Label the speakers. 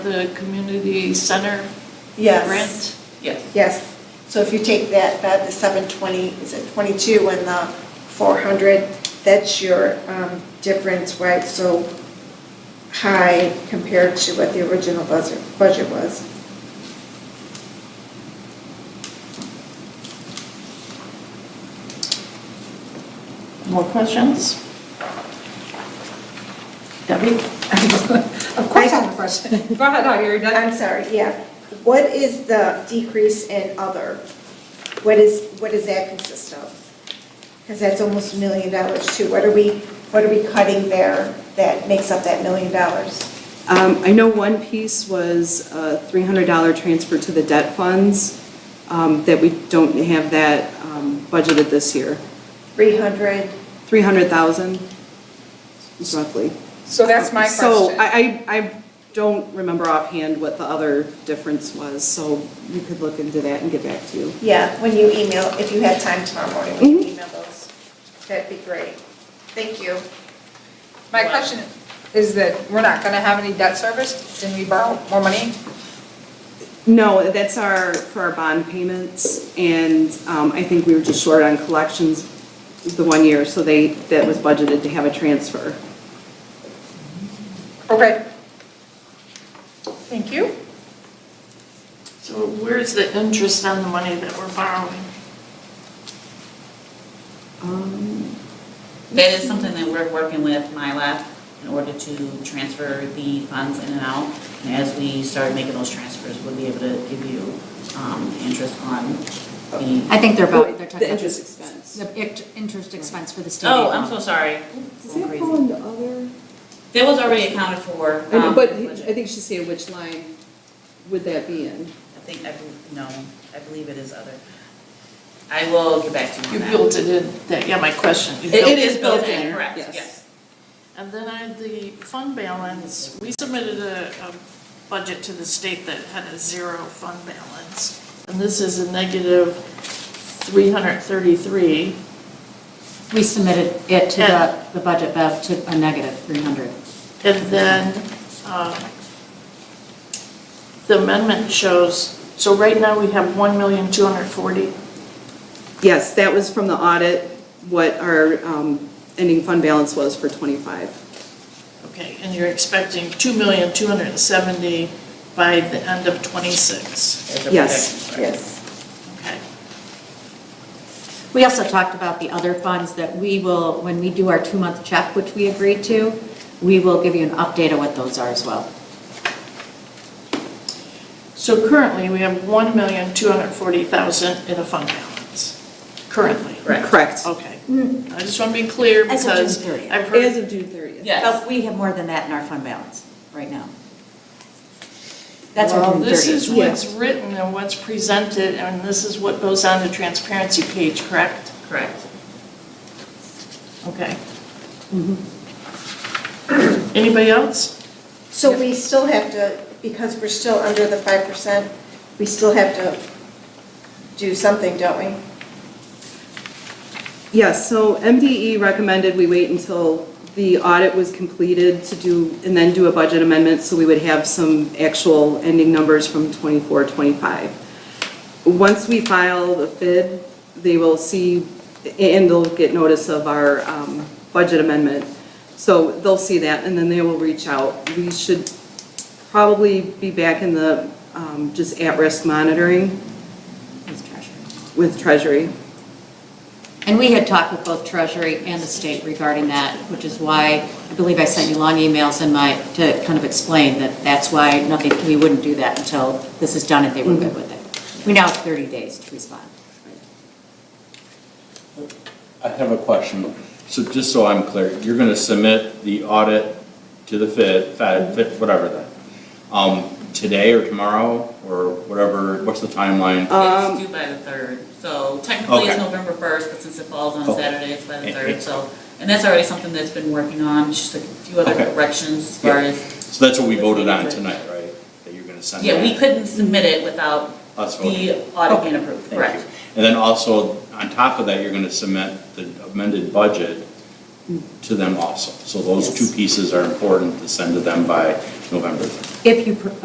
Speaker 1: The community center
Speaker 2: Yes,
Speaker 1: rent? Yes.
Speaker 2: yes. So if you take that, that the 720, is it 22 and the 400, that's your um, difference, right? So high compared to what the original buzzer- budget was.
Speaker 1: More questions? Debbie?
Speaker 3: Of course I have a question. Go ahead, oh, you're done.
Speaker 2: I'm sorry, yeah. What is the decrease in other? What is, what does that consist of? Because that's almost a million dollars too. What are we, what are we cutting there that makes up that million dollars?
Speaker 4: Um, I know one piece was a $300 transfer to the debt funds, um, that we don't have that um, budgeted this year.
Speaker 2: 300?
Speaker 4: 300,000 is roughly.
Speaker 3: So that's my
Speaker 4: So
Speaker 3: question.
Speaker 4: I, I, I don't remember offhand what the other difference was, so you could look into that and get back to you.
Speaker 2: Yeah, when you email, if you had time tomorrow morning, when
Speaker 5: Mm-hmm.
Speaker 2: you email those, that'd be great. Thank you.
Speaker 3: My question is that we're not gonna have any debt service, didn't we borrow more money?
Speaker 4: No, that's our, for our bond payments, and um, I think we were just short on collections the one year, so they, that was budgeted to have a transfer.
Speaker 3: Okay. Thank you.
Speaker 1: So where's the interest on the money that we're borrowing?
Speaker 4: Um,
Speaker 6: That is something that we're working with MyLab in order to transfer the funds in and out. And as we start making those transfers, we'll be able to give you um, the interest on the.
Speaker 5: I think they're about, they're talking
Speaker 4: The
Speaker 5: about
Speaker 4: interest
Speaker 5: the
Speaker 4: expense.
Speaker 5: int- interest expense for the state.
Speaker 6: Oh, I'm so sorry.
Speaker 4: Does
Speaker 6: Going
Speaker 4: that
Speaker 6: crazy.
Speaker 4: fall into other?
Speaker 6: That was already accounted for.
Speaker 4: I know,
Speaker 6: um,
Speaker 4: But
Speaker 6: in the budget.
Speaker 4: I think she said which line would that be in?
Speaker 6: I think, I, bel- no, I believe it is other. I will get back to
Speaker 1: You
Speaker 6: you on that.
Speaker 1: built it in, that, yeah, my question. you
Speaker 6: It-
Speaker 1: built
Speaker 6: It is built in, correct,
Speaker 4: Yes.
Speaker 6: yes.
Speaker 1: And then I had the fund balance, we submitted a, a budget to the state that had a zero fund balance. And this is a negative three hundred thirty-three.
Speaker 5: We submitted it to
Speaker 1: Yeah.
Speaker 5: the, the budget, Bev, to a negative 300.
Speaker 1: And then, um, the amendment shows, so right now we have one million two hundred forty.
Speaker 4: Yes, that was from the audit, what our um, ending fund balance was for '25.
Speaker 1: Okay, and you're expecting two million two hundred seventy by the end of twenty-six,
Speaker 6: There's a
Speaker 4: Yes.
Speaker 6: projection.
Speaker 2: Yes.
Speaker 1: okay?
Speaker 5: We also talked about the other funds that we will, when we do our two-month check, which we agreed to, we will give you an update of what those are as well.
Speaker 1: So currently, we have one million two hundred forty thousand in a fund balance, currently.
Speaker 6: Correct.
Speaker 4: Correct.
Speaker 1: Okay, I just want to be clear
Speaker 5: Hmm. As of June
Speaker 1: because
Speaker 5: 30th.
Speaker 1: I've
Speaker 4: As
Speaker 1: heard,
Speaker 4: of June 30th.
Speaker 6: Yes.
Speaker 5: But we have more than that in our fund balance right now. That's our
Speaker 1: well,
Speaker 5: June
Speaker 1: this is
Speaker 5: 30th.
Speaker 1: what's written and what's presented, and this is what goes on the transparency page, correct?
Speaker 6: Correct.
Speaker 1: Okay. Anybody else?
Speaker 2: So we still have to, because we're still under the 5%, we still have to do something, don't we?
Speaker 4: Yes, so MDE recommended we wait until the audit was completed to do, and then do a budget amendment, so we would have some actual ending numbers from 24, 25. Once we file the FID, they will see, and they'll get notice of our um, budget amendment. So they'll see that, and then they will reach out. We should probably be back in the, um, just at-risk monitoring
Speaker 5: It's treasurer.
Speaker 4: with Treasury.
Speaker 5: And we had talked with both Treasury and the state regarding that, which is why, I believe I sent you long emails in my, to kind of explain that that's why nothing, we wouldn't do that until this is done and they were good with it. We now have 30 days to respond.
Speaker 7: I have a question. So just so I'm clear, you're going to submit the audit to the Fed, Fed, Fed- whatever then, um, today or tomorrow or whatever, what's the timeline?
Speaker 4: Um,
Speaker 6: It's due by the third, so technically it's
Speaker 7: Okay.
Speaker 6: November first, but since it falls on
Speaker 7: Okay.
Speaker 6: Saturday, it's by the
Speaker 7: It-
Speaker 6: third,
Speaker 7: it-
Speaker 6: so. And that's already something that's been working on, just a few other
Speaker 7: Okay.
Speaker 6: corrections as far
Speaker 7: Yeah.
Speaker 6: as,
Speaker 7: So that's what we voted on tonight, right? That you're going to send?
Speaker 6: yeah, we
Speaker 7: that?
Speaker 6: couldn't submit it without
Speaker 7: Us
Speaker 6: the
Speaker 7: voting.
Speaker 6: audit
Speaker 7: Okay.
Speaker 6: being approved,
Speaker 7: Thank you.
Speaker 6: correct?
Speaker 7: And then also, on top of that, you're going to submit the amended budget
Speaker 6: Hmm.
Speaker 7: to them also. So those two pieces are important to send to them by November 3rd.
Speaker 5: If you, pr-